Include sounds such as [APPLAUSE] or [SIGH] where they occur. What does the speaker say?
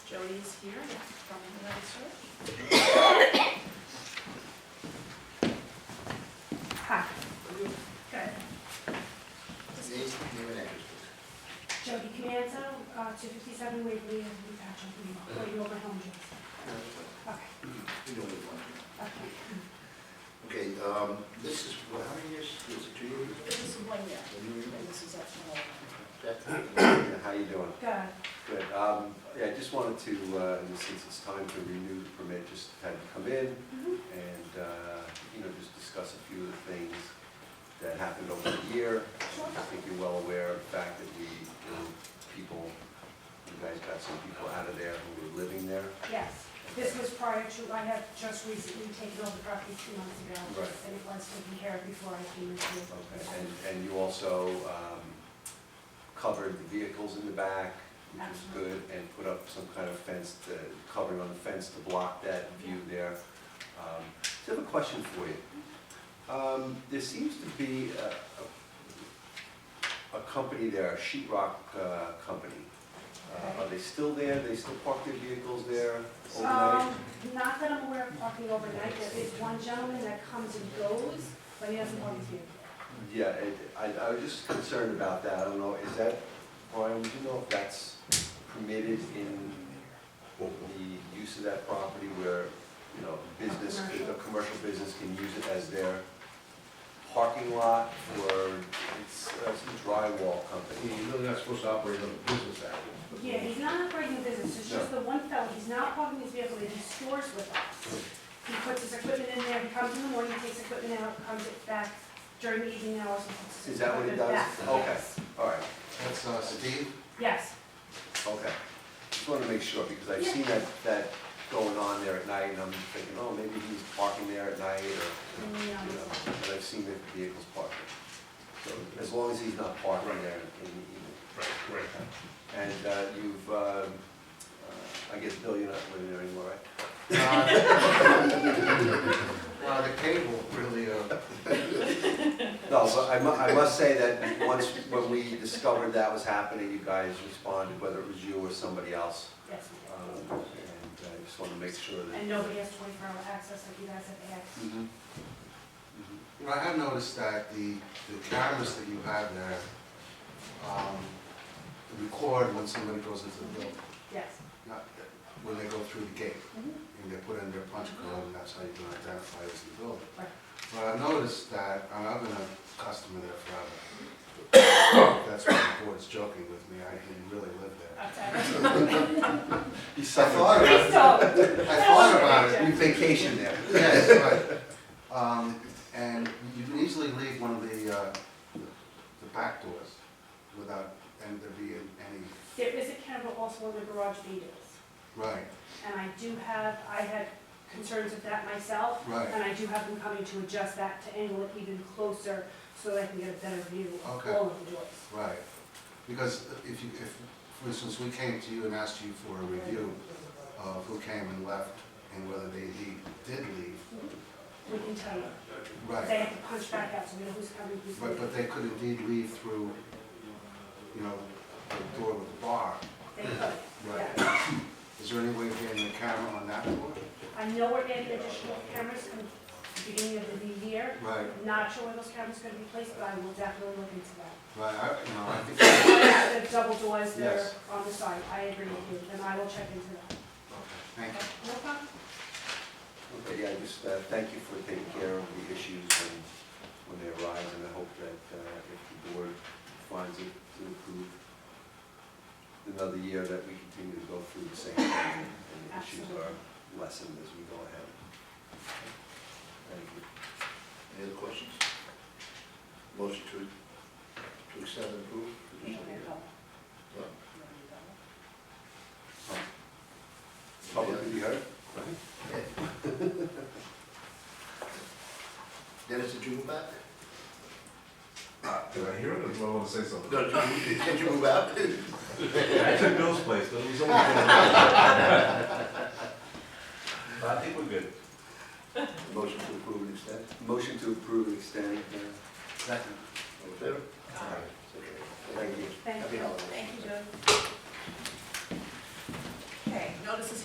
Jody is here from United Church. Hi. Good. Name, name and address, please. Jody Comanzo, uh, 257 Waverly, and we got you, we got you over home, Jason. Okay, You know what you want to know. okay. Okay, um, this is, well, how many years, is it two years? This is one year, One year? and this is up to one. Yeah, How you doing? Good. Good. Um, Yeah, I just wanted to, uh, in the sense it's time to renew the permit, just had to come in Mhm. and, uh, you know, just discuss a few of the things that happened over the year. I think you're well aware of the fact that we, you know, people, you guys got some people out of there who were living there. Yes, this was prior to, I had just recently taken over the property two months ago. Right. And it was taken care of before I came in. here. Okay, and, and you also um, covered the vehicles in the back, which is good, and put up some kind of fence, to- covering on the fence to block that view there. Um, So I have a question for you. Um, There seems to be a- a a company there, a sheet rock uh, company. Uh, Are they still there? They still park their vehicles there overnight? Um, Not that I'm aware of parking overnight, there is one gentleman that comes and goes, but he doesn't park here. Yeah, it- I, I was just concerned about that, I don't know, is that, Brian, do you know if that's permitted in the use of that property where, you know, business, a commercial business can use it as their parking lot for, it's uh, some drywall company? You're really not supposed to operate on a business hours. Yeah, he's not operating a business, it's just the one fellow, he's not parking his vehicle, he stores with us. He puts his equipment in there, he comes in the morning, takes equipment out, comes it back during the evening hours. and puts his Is that what he equipment does? back. Okay. Yes. All right, That's, uh, Steve? Yes, okay. Just wanted to make sure, because I've Yeah. seen that, that going on there at night, and I'm thinking, oh, maybe he's parking there at night, or, and, you know, you know, but I've seen the vehicles parked there. So as long as he's not parking there in the evening. Right, right. And uh, you've, um, uh, I guess, Bill, you're not living there anymore, right? Uh, [LAUGHS] the cable really, uh, No, but I mu- I must say that once, when we discovered that was happening, you guys responded, whether it was you or somebody else. yes, Um, And I just want to make sure we do. that. and nobody has twenty-four hour access like you guys have had. Mhm. Mhm. you know, I have noticed that the, the cameras that you have there, [LAUGHS] um, record when somebody goes into the building, Yes, not, when they go through the gate. Mhm. And they put in their punch card, and that's how you can identify who's in the building. Right. But I noticed that, and I've been a customer there forever. That's why the board's joking with me, I didn't really live there. [LAUGHS] outside. I You suffer. thought about Please don't. it, I thought about it, You vacation there. yes, but, um, and you can easily leave one of the, uh, the back doors without, and there being any, There is a camera also on the garage windows, right, and I do have, I had concerns with that myself, right, And I do have them coming to adjust that to angle it even closer so that I can get a better view of Okay. all of the doors. right. Because if you, if, for instance, we came to you and asked you for a review of who came and left and whether they indeed did leave, We can tell you, right. they have to punch back out so we know who's coming, who's But, leaving. but they could indeed leave through, you know, the door with the bar. They could, [CLEARS THROAT] Right. yeah. Is there any way of getting a camera on that door? I know we're adding additional cameras in the beginning of the new year. Right, Not sure where those cameras are gonna be placed, but I will definitely look into that. right, I, you know, I think, The double doors that Yes. are on the side, I agree with you, and I will check into that. thank you. No problem? Okay, yeah, just uh, thank you for taking care of the issues and when they arise, and I hope that uh, if the board finds it to approve another year, that we continue to go through the same thing, and the issues are lessened as we go ahead. Thank you. Any other questions? Motion to, to accept and approve? You don't have to. Public, have you heard? Dennis, did you move out? Did I hear it, or do I want to say something? No, did you, did you move out? I took Bill's place, but it [LAUGHS] was only. But I think we're good. Motion to approve and extend? Motion to approve and extend, uh, Second. All in favor? thank you. Thank Happy you. holidays. Thank you, Jody. Okay, no notices